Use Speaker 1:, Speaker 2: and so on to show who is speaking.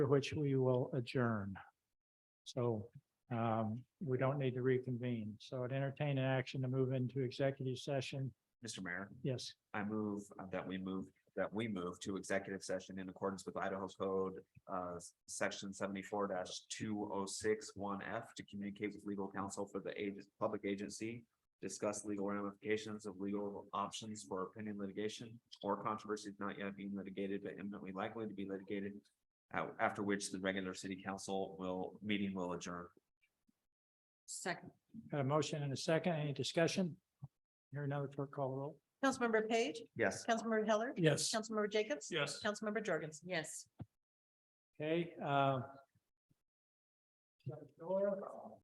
Speaker 1: which we will adjourn. So um, we don't need to reconvene. So I'd entertain an action to move into executive session.
Speaker 2: Mr. Mayor,
Speaker 1: Yes,
Speaker 2: I move uh, that we move, that we move to executive session in accordance with Idaho Code, uh, section seventy-four two oh six one F to communicate with legal counsel for the ag- public agency, discuss legal ramifications of legal options for pending litigation or controversies not yet being litigated but imminently likely to be litigated, uh, after which the regular city council will, meeting will adjourn.
Speaker 3: Second.
Speaker 1: got a motion and a second. Any discussion? Hear another clerk call the roll.
Speaker 4: Councilmember Page,
Speaker 2: Yes.
Speaker 4: Councilmember Heller.
Speaker 1: Yes.
Speaker 4: Councilmember Jacobs.
Speaker 1: Yes.
Speaker 4: Councilmember Jorgensen.
Speaker 3: Yes.
Speaker 1: Okay. uh,